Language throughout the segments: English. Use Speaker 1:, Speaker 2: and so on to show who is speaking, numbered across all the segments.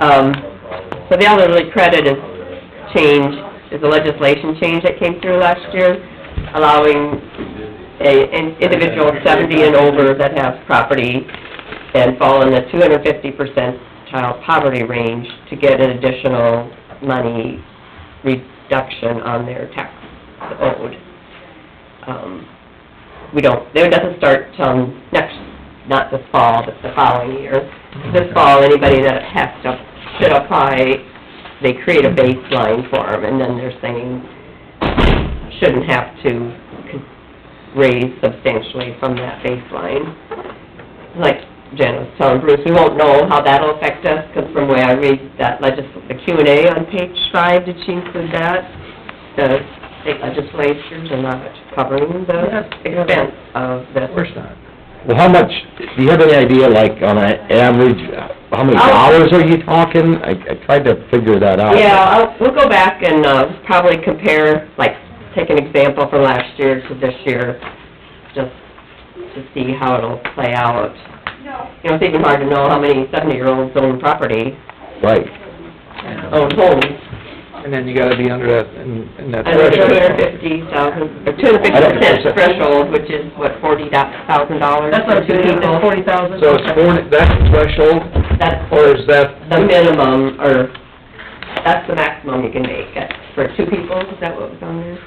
Speaker 1: Um, so the elderly credit is change, is a legislation change that came through last year, allowing a, an individual seventy and over that have property and fall in the two hundred fifty percentile poverty range to get an additional money reduction on their tax owed. Um, we don't, it doesn't start till next, not this fall, but the following year. This fall, anybody that has to, should apply, they create a baseline for them, and then they're saying, shouldn't have to raise substantially from that baseline. Like Jen was telling Bruce, we won't know how that'll affect us, because from the way I read that legis, the Q and A on page five, did she include that? The state legislatures are not covering the expense of this.
Speaker 2: Of course not.
Speaker 3: Well, how much, do you have any idea, like, on an average, how many
Speaker 1: I'll-
Speaker 3: hours are you talking? I, I tried to figure that out.
Speaker 1: Yeah, I'll, we'll go back and, uh, probably compare, like, take an example from last year to this year, just to see how it'll play out. You know, it's even hard to know how many seventy-year-olds own property,
Speaker 3: Right.
Speaker 1: own homes.
Speaker 2: Oh, And then you gotta be under that, in in that
Speaker 1: I think two
Speaker 2: threshold.
Speaker 1: hundred and fifty thousand, or two hundred
Speaker 3: I
Speaker 1: and fifty
Speaker 3: don't-
Speaker 1: percent threshold, which is, what, forty thousand dollars?
Speaker 4: That's what I'm thinking, it's forty thousand.
Speaker 2: So it's forty, that's the threshold,
Speaker 1: That's
Speaker 2: or is that,
Speaker 1: the minimum, or, that's the maximum you can make, uh, for two people, is that what was on there?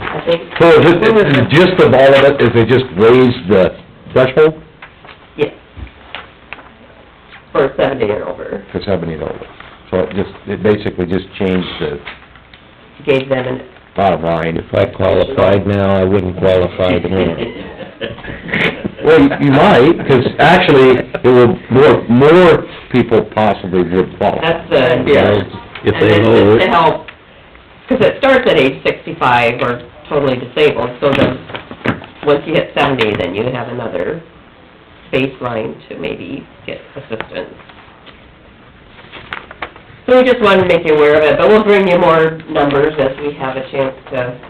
Speaker 1: I think,
Speaker 3: So is it, is the gist of all of it, is they just raised the threshold
Speaker 1: yes. For seventy and over,
Speaker 3: to seventy and over? So it just, it basically just changed the
Speaker 1: gave them an,
Speaker 3: bottom line. If I
Speaker 1: qualified
Speaker 3: now, I wouldn't qualify Well,
Speaker 5: Well,
Speaker 3: you you might, because actually, it will, more, more people possibly would qualify.
Speaker 1: that's the,
Speaker 3: Yeah.
Speaker 1: and it's just to help, because it starts at age sixty-five or totally disabled, so then, once you hit seventy, then you have another baseline to maybe get assistance. So we just wanted to make you aware of it, but we'll bring you more numbers as we have a chance to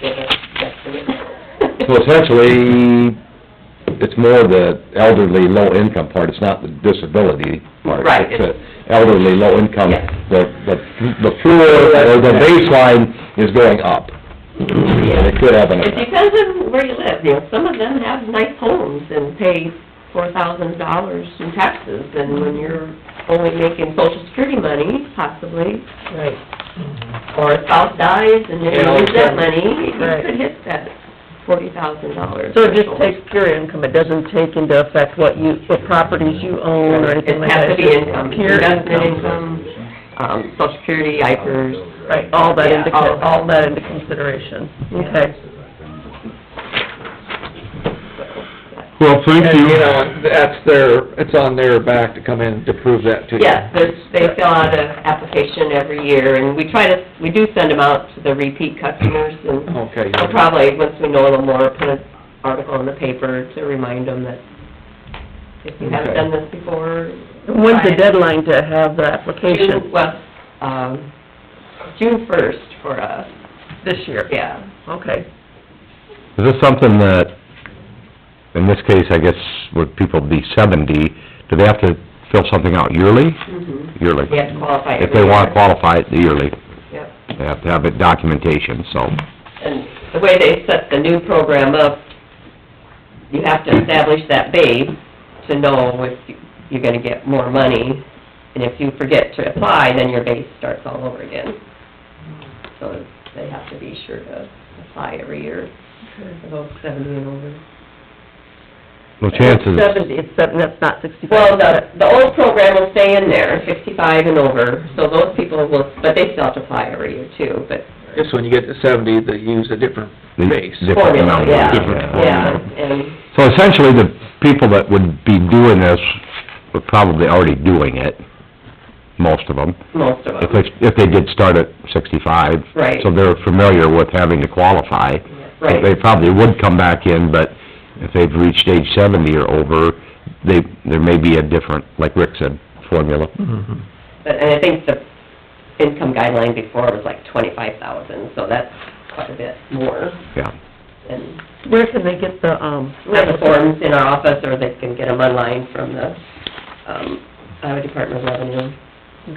Speaker 1: get a estimate.
Speaker 3: So essentially, it's more the elderly, low-income part, it's not the disability part.
Speaker 1: Right.
Speaker 3: It's the elderly, low-income,
Speaker 1: Yes.
Speaker 3: the, the, the floor, or the baseline is going up. And it could have an
Speaker 1: It
Speaker 3: effect.
Speaker 1: depends on where you live, you know, some of them have nice homes and pay four thousand dollars in taxes, and when you're only making social security money, possibly,
Speaker 4: Right.
Speaker 1: or a spouse dies and you
Speaker 2: Yeah,
Speaker 1: lose
Speaker 2: okay.
Speaker 1: that money, you
Speaker 4: Right.
Speaker 1: could hit that forty thousand dollars.
Speaker 4: So it just takes pure income, it doesn't take into effect what you, what properties you own or anything
Speaker 1: It
Speaker 4: like
Speaker 1: has to
Speaker 4: that?
Speaker 1: be
Speaker 4: it's just
Speaker 1: income,
Speaker 4: Pure
Speaker 1: investment
Speaker 4: income,
Speaker 1: income, um, social security, IFRS,
Speaker 4: right, all that
Speaker 1: Yeah,
Speaker 4: into,
Speaker 1: all of
Speaker 4: con-
Speaker 1: that.
Speaker 4: all that into consideration, okay.
Speaker 6: Well, thank
Speaker 2: and,
Speaker 6: you.
Speaker 2: you know, that's their, it's on their back to come in to prove that to you.
Speaker 1: Yes, there's, they fill out a application every year, and we try to, we do send them out to the repeat customers, and
Speaker 2: Okay.
Speaker 1: I'll probably, once we know a little more, put an article in the paper to remind them that if you haven't done this before.
Speaker 4: When's
Speaker 1: try
Speaker 4: the
Speaker 1: it.
Speaker 4: deadline to have the
Speaker 1: June,
Speaker 4: application?
Speaker 1: well, um, June first for us,
Speaker 4: This year?
Speaker 1: yeah.
Speaker 4: Okay.
Speaker 3: Is this something that, in this case, I guess, would people be seventy, do they have to fill something out yearly?
Speaker 1: Mhm.
Speaker 3: Yearly.
Speaker 1: They have to qualify.
Speaker 3: Mm-hmm. If they
Speaker 1: every
Speaker 3: wanna
Speaker 1: year.
Speaker 3: qualify yearly,
Speaker 1: Yep.
Speaker 3: they have to have it documentation, so.
Speaker 1: And the way they set the new program up, you have to establish that base to know if you- you're gonna get more money. And if you forget to apply, then your base starts all over again. So they have to be sure to apply every year, about seventy and over.
Speaker 3: No chances,
Speaker 4: Seventy, it's seven, that's not sixty-five.
Speaker 1: Well, the, the old program will stay in there, fifty-five and over, so those people will, but they still have to apply every year too, but
Speaker 2: Just when you get to seventy, they use a different
Speaker 3: The
Speaker 2: base.
Speaker 3: different
Speaker 1: formula,
Speaker 3: number,
Speaker 1: yeah,
Speaker 3: different
Speaker 1: yeah,
Speaker 3: formula.
Speaker 1: and
Speaker 3: So essentially, the people that would be doing this were probably already doing it, most of them,
Speaker 1: most of them.
Speaker 3: if they, if they did start at sixty-five.
Speaker 1: Right.
Speaker 3: So they're familiar with having to qualify.
Speaker 1: Right.
Speaker 3: They probably would come back in, but if they've reached age seventy or over, they, there may be a different, like Rick said, formula.
Speaker 6: Mm-hmm.
Speaker 1: But, and I think the income guideline before was like twenty-five thousand, so that's quite a bit more.
Speaker 3: Yeah.
Speaker 1: And
Speaker 4: Where can they get the, um?
Speaker 1: we have the forms in our office, or they can get them online from the, um, Iowa Department of Revenue.